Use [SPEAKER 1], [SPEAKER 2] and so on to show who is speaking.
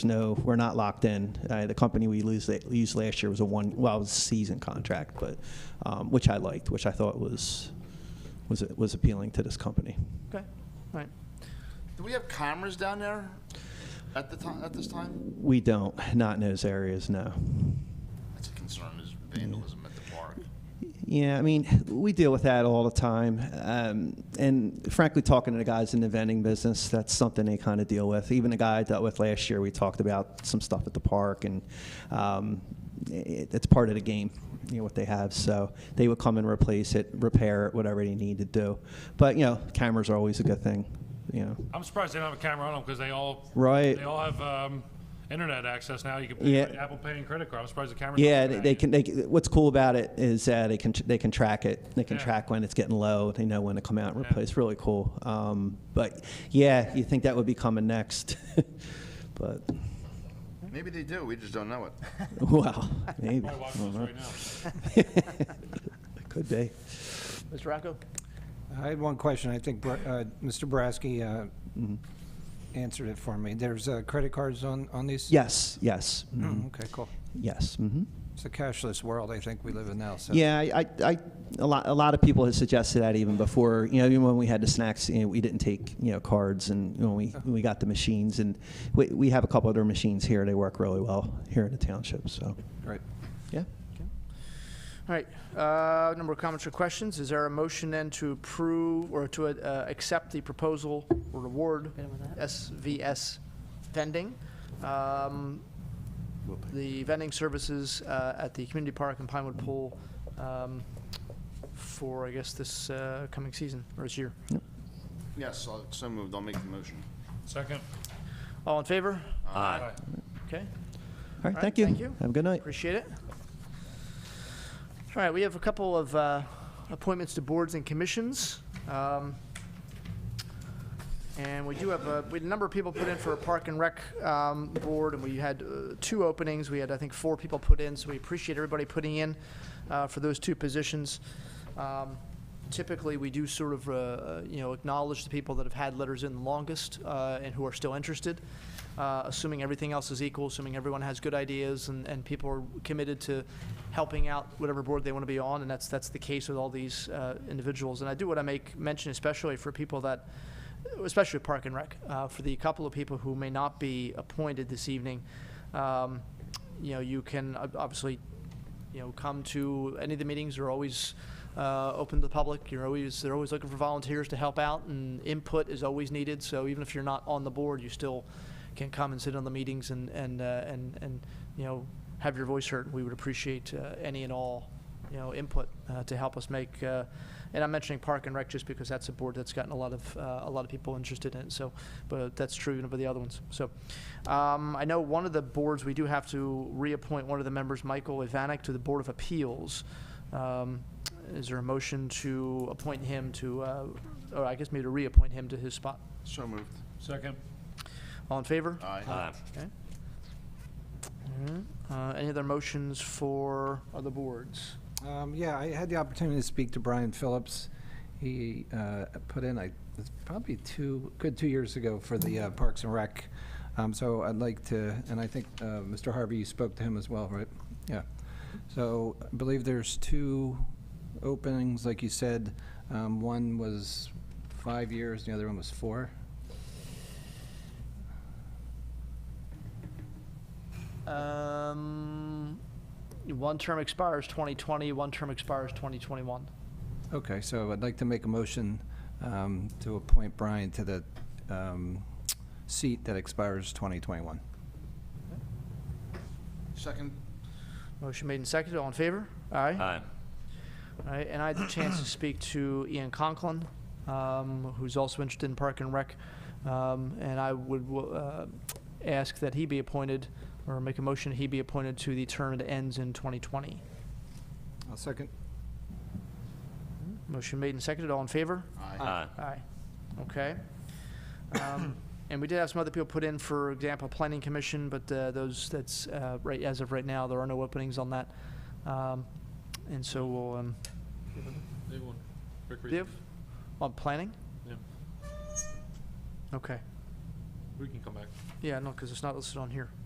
[SPEAKER 1] no, we're not locked in. Uh, the company we lose, used last year was a one, well, it was a season contract, but, um, which I liked, which I thought was, was, was appealing to this company.
[SPEAKER 2] Okay, all right.
[SPEAKER 3] Do we have cameras down there at the time, at this time?
[SPEAKER 1] We don't, not in those areas, no.
[SPEAKER 3] That's a concern, is vandalism at the park.
[SPEAKER 1] Yeah, I mean, we deal with that all the time. Um, and frankly, talking to the guys in the vending business, that's something they kind of deal with. Even the guy I dealt with last year, we talked about some stuff at the park, and um, it, it's part of the game, you know, what they have. So they would come and replace it, repair it, whatever they need to do. But, you know, cameras are always a good thing, you know.
[SPEAKER 4] I'm surprised they don't have a camera on them because they all
[SPEAKER 1] Right.
[SPEAKER 4] They all have um, internet access now. You can pay
[SPEAKER 1] Yeah.
[SPEAKER 4] with Apple Pay and credit card. I'm surprised the cameras. don't
[SPEAKER 1] Yeah,
[SPEAKER 4] do
[SPEAKER 1] they,
[SPEAKER 4] that
[SPEAKER 1] they
[SPEAKER 4] yet.
[SPEAKER 1] can. They, can- what's cool about it is uh, they can they can track it. They can
[SPEAKER 4] Yeah.
[SPEAKER 1] track when it's getting low. They know when to come out and replace. Really cool. Um, but yeah, you think that would be coming next? but
[SPEAKER 3] Maybe they do, we just don't know it.
[SPEAKER 1] wow, maybe
[SPEAKER 4] Probably watching us right now.
[SPEAKER 1] could be.
[SPEAKER 2] Mr. Rocco?
[SPEAKER 5] I had one question. I think Bra- uh, Mr. Boraski uh, answered it for me. There's uh, credit cards on, on these?
[SPEAKER 1] Yes, yes, mm,
[SPEAKER 4] Mm-hmm.
[SPEAKER 5] Mm, Okay, cool.
[SPEAKER 1] yes. hmm
[SPEAKER 5] It's a cashless world I think we live in now, so.
[SPEAKER 1] Yeah, I, I, I, a lot, a lot of people had suggested that even before, you know, even when we had the snacks, you know, we didn't take, you know, cards and you know, we, when we got the machines and we, we have a couple other machines here. They work really well here in the township. So,
[SPEAKER 5] Right.
[SPEAKER 1] yeah.
[SPEAKER 2] All right, uh, number of comments or questions. Is there a motion then to approve or to uh, accept the proposal or award SVS vending? um, The vending services uh, at the community park and Pinewood Pool um, for, I guess, this uh, coming season or this year.
[SPEAKER 3] Yes, I'll- so moved, I'll make the motion.
[SPEAKER 4] Second.
[SPEAKER 2] All in favor?
[SPEAKER 4] Aye.
[SPEAKER 2] Okay.
[SPEAKER 1] All right, thank you.
[SPEAKER 2] thank you.
[SPEAKER 1] Have a good night.
[SPEAKER 2] Appreciate it. All right, we have a couple of uh, appointments to boards and commissions. Um, And we do have, a- we had a number of people put in for a Park and Rec um, board, and we had uh, two openings. We had, I think, four people put in, so we appreciate everybody putting in uh, for those two positions. Um, Typically, we do sort of, uh, uh, you know, acknowledge the people that have had letters in the longest uh, and who are still interested, uh, assuming everything else is equal, assuming everyone has good ideas and, and people are committed to helping out whatever board they want to be on, and that's, that's the case with all these uh, individuals. And I do want to make mention, especially for people that especially Park and Rec, uh, for the couple of people who may not be appointed this evening, um, you know, you can ob- obviously, you know, come to any of the meetings. They're always uh, open to the public. You're always they're always looking for volunteers to help out, and input is always needed. So even if you're not on the board, you still can come and sit on the meetings and and uh, and and you know have your voice heard. We would appreciate uh, any and all you know, input uh, to help us make. Uh, and I'm mentioning Park and Rec just because that's a board that's gotten a lot of uh, a lot of people interested in. it. So, but that's true even for the other ones. So, um, I know one of the boards we do have to reappoint one of the members, Michael Ivanek, to the Board of Appeals. Um, is there a motion to appoint him to, uh, or I guess maybe to reappoint him to his spot?
[SPEAKER 3] So moved.
[SPEAKER 4] Second.
[SPEAKER 2] All in favor?
[SPEAKER 3] Aye.
[SPEAKER 2] Okay. All right. Uh, any other motions for other boards?
[SPEAKER 5] Um, Yeah, I had the opportunity to speak to Brian Phillips. He uh, put in, I, it's probably two, good two years ago for the uh, Parks and Rec. Um, So I'd like to, and I think, uh, Mr. Harvey, you spoke to him as well, right? Yeah. So I believe there's two openings, like you said. Um, One was five years, the other one was four.
[SPEAKER 2] Um, one term expires 2020, one term expires 2021.
[SPEAKER 5] Okay, so I'd like to make a motion um, to appoint Brian to the um, seat that expires 2021.
[SPEAKER 3] Second?
[SPEAKER 2] Motion made and seconded, all in favor? Aye. Aye. All right, and I had the chance to speak to Ian Conklin, um, who's also interested in Park and Rec. Um, and I would, uh, ask that he be appointed, or make a motion he be appointed to the term that ends in 2020.
[SPEAKER 5] I'll second.
[SPEAKER 2] Motion made and seconded, all in favor?
[SPEAKER 3] Aye.
[SPEAKER 2] Aye. Okay. Um, And we did have some other people put in, for example, Planning Commission, but uh, those, that's, uh, right, as of right now, there are no openings on that. Um, And so we'll, um,
[SPEAKER 4] They won. Rick Reed.
[SPEAKER 2] Div, on planning?
[SPEAKER 4] Yeah.
[SPEAKER 2] Okay.
[SPEAKER 4] We can come back.
[SPEAKER 2] Yeah, no, because it's not listed on here.